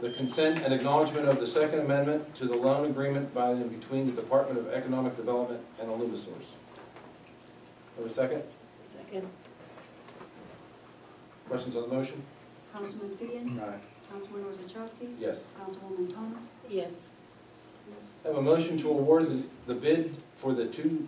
the consent and acknowledgement of the Second Amendment to the loan agreement by and between the Department of Economic Development and Alumisource. Have a second? Second. Questions on the motion? Councilman Fian, Aye. Councilman Orzachowski, Yes. Councilwoman Thomas, Yes. Have a motion to award the- the bid for the two,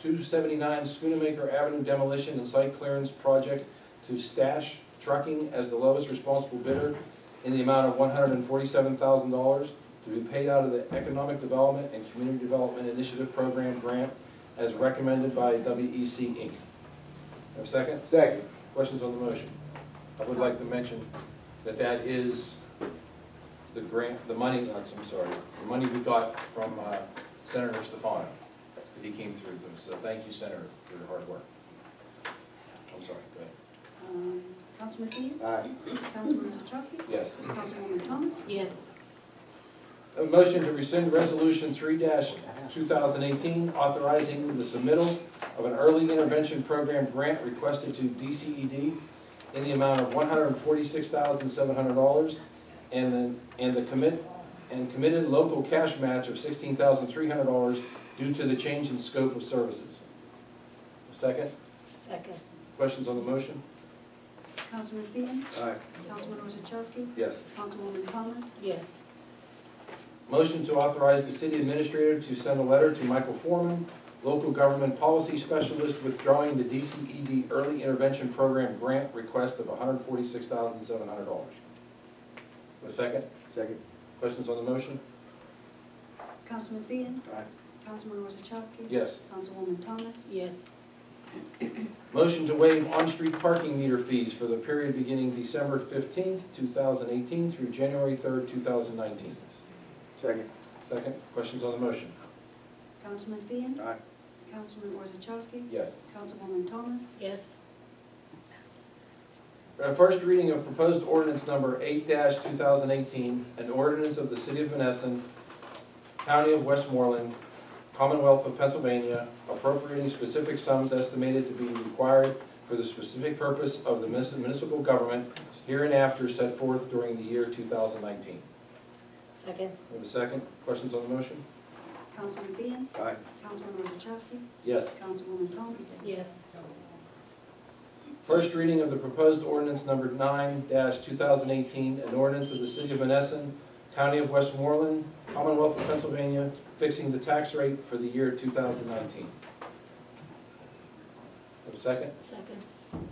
two seventy-nine Schoonamaker Avenue demolition and site clearance project to Stash Trucking as the lowest responsible bidder in the amount of one hundred and forty-seven thousand dollars to be paid out of the Economic Development and Community Development Initiative Program grant as recommended by WEC Inc. Have a second? Second. Questions on the motion? I would like to mention that that is the grant, the money, that's- I'm sorry, the money we got from uh, Senator Stefano. that He came through with, so thank you, Senator, for your hard work. I'm sorry, go ahead. um, Councilman Fian, Aye. Councilman Orzachowski, Yes. Councilwoman Thomas, Yes. A motion to rescind Resolution three two thousand eighteen, authorizing the submittal of an early intervention program grant requested to DCED in the amount of one hundred and forty-six thousand, seven hundred dollars, and then, and the commit, and committed local cash match of sixteen thousand, three hundred dollars due to the change in scope of services. Second, Second. questions on the motion? Councilman Fian, Aye. Councilman Orzachowski, Yes. Councilwoman Thomas, Yes. Motion to authorize the city administrator to send a letter to Michael Foreman, local government policy specialist, withdrawing the DCED Early Intervention Program grant request of $146,700. A second? Second. Questions on the motion? Councilman Fian, Aye. Councilman Orzachowski, Yes. Councilwoman Thomas, Yes. Motion to waive on-street parking meter fees for the period beginning December 15th, 2018 through January 3rd, 2019. Second. Second? Questions on the motion? Councilman Fian, Aye. Councilman Orzachowski, Yes. Councilwoman Thomas, Yes. Uh, First reading of proposed ordinance number eight two thousand eighteen, an ordinance of the city of Menneson, county of Westmoreland, Commonwealth of Pennsylvania, appropriating specific sums estimated to be required for the specific purpose of the munis- municipal government hereinafter set forth during the year two thousand nineteen. Second. Have a second? Questions on the motion? Councilman Fian, Aye. Councilman Orzachowski, Yes. Councilwoman Thomas, Yes. First reading of the proposed ordinance number nine two thousand eighteen, an ordinance of the city of Menneson, county of Westmoreland, Commonwealth of Pennsylvania, fixing the tax rate for the year two thousand nineteen. Have a second? Second.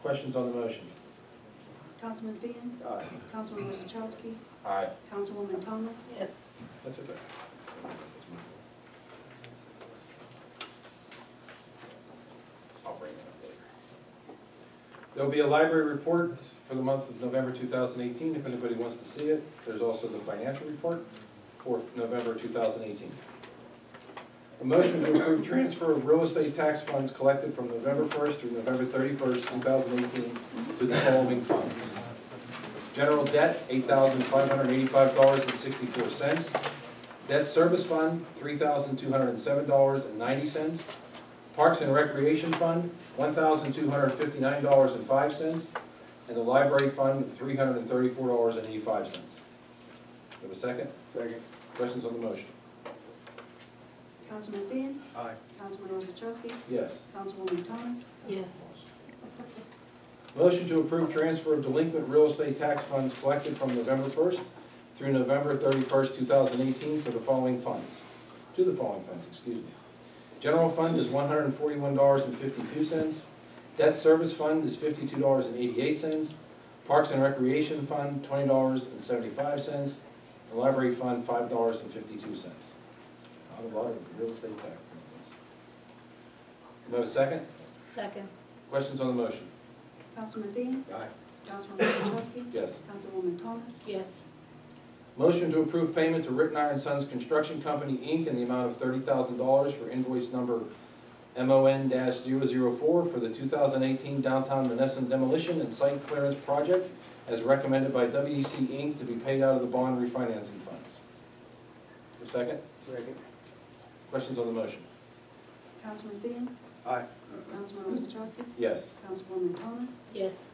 Questions on the motion? Councilman Fian, Aye. Councilman Orzachowski, Aye. Councilwoman Thomas, Yes. That's okay. I'll bring it up later. There'll be a library report for the month of November 2018, if anybody wants to see it. There's also the financial report for November 2018. A motion to approve transfer of real estate tax funds collected from November 1st through November 31st, 2018, to the following funds. General debt, $8,585.64. Debt service fund, three thousand two hundred and seven dollars and ninety cents. Parks and Recreation Fund, one thousand two hundred and fifty-nine dollars and five cents. And the Library Fund, three hundred and thirty-four dollars and eighty-five cents. Do I have a second? Second. Questions on the motion? Councilman Fian, Aye. Councilman Orzachowski, Yes. Councilwoman Thomas, Yes. Motion to approve transfer of delinquent real estate tax funds collected from November first through November thirty-first, two thousand eighteen for the following funds, to the following funds, excuse me. General fund is one hundred and forty-one dollars and fifty-two cents. Debt service fund is fifty-two dollars and eighty-eight cents. Parks and Recreation Fund, twenty dollars and seventy-five cents. And Library Fund, five dollars and fifty-two cents. Not a lot of real estate tax. Do I have a second? Second. Questions on the motion? Councilman Fian, Aye. Councilman Orzachowski, Yes. Councilwoman Thomas, Yes. Motion to approve payment to Ritten Iron Sons Construction Company, Inc. in the amount of thirty thousand dollars for invoice number MON 4 for the two thousand eighteen downtown Menneson demolition and site clearance project as recommended by WEC Inc. to be paid out of the bond refinancing funds. A second? Second. Questions on the motion? Councilman Fian, Aye. Councilman Orzachowski, Yes. Councilwoman Thomas, Yes.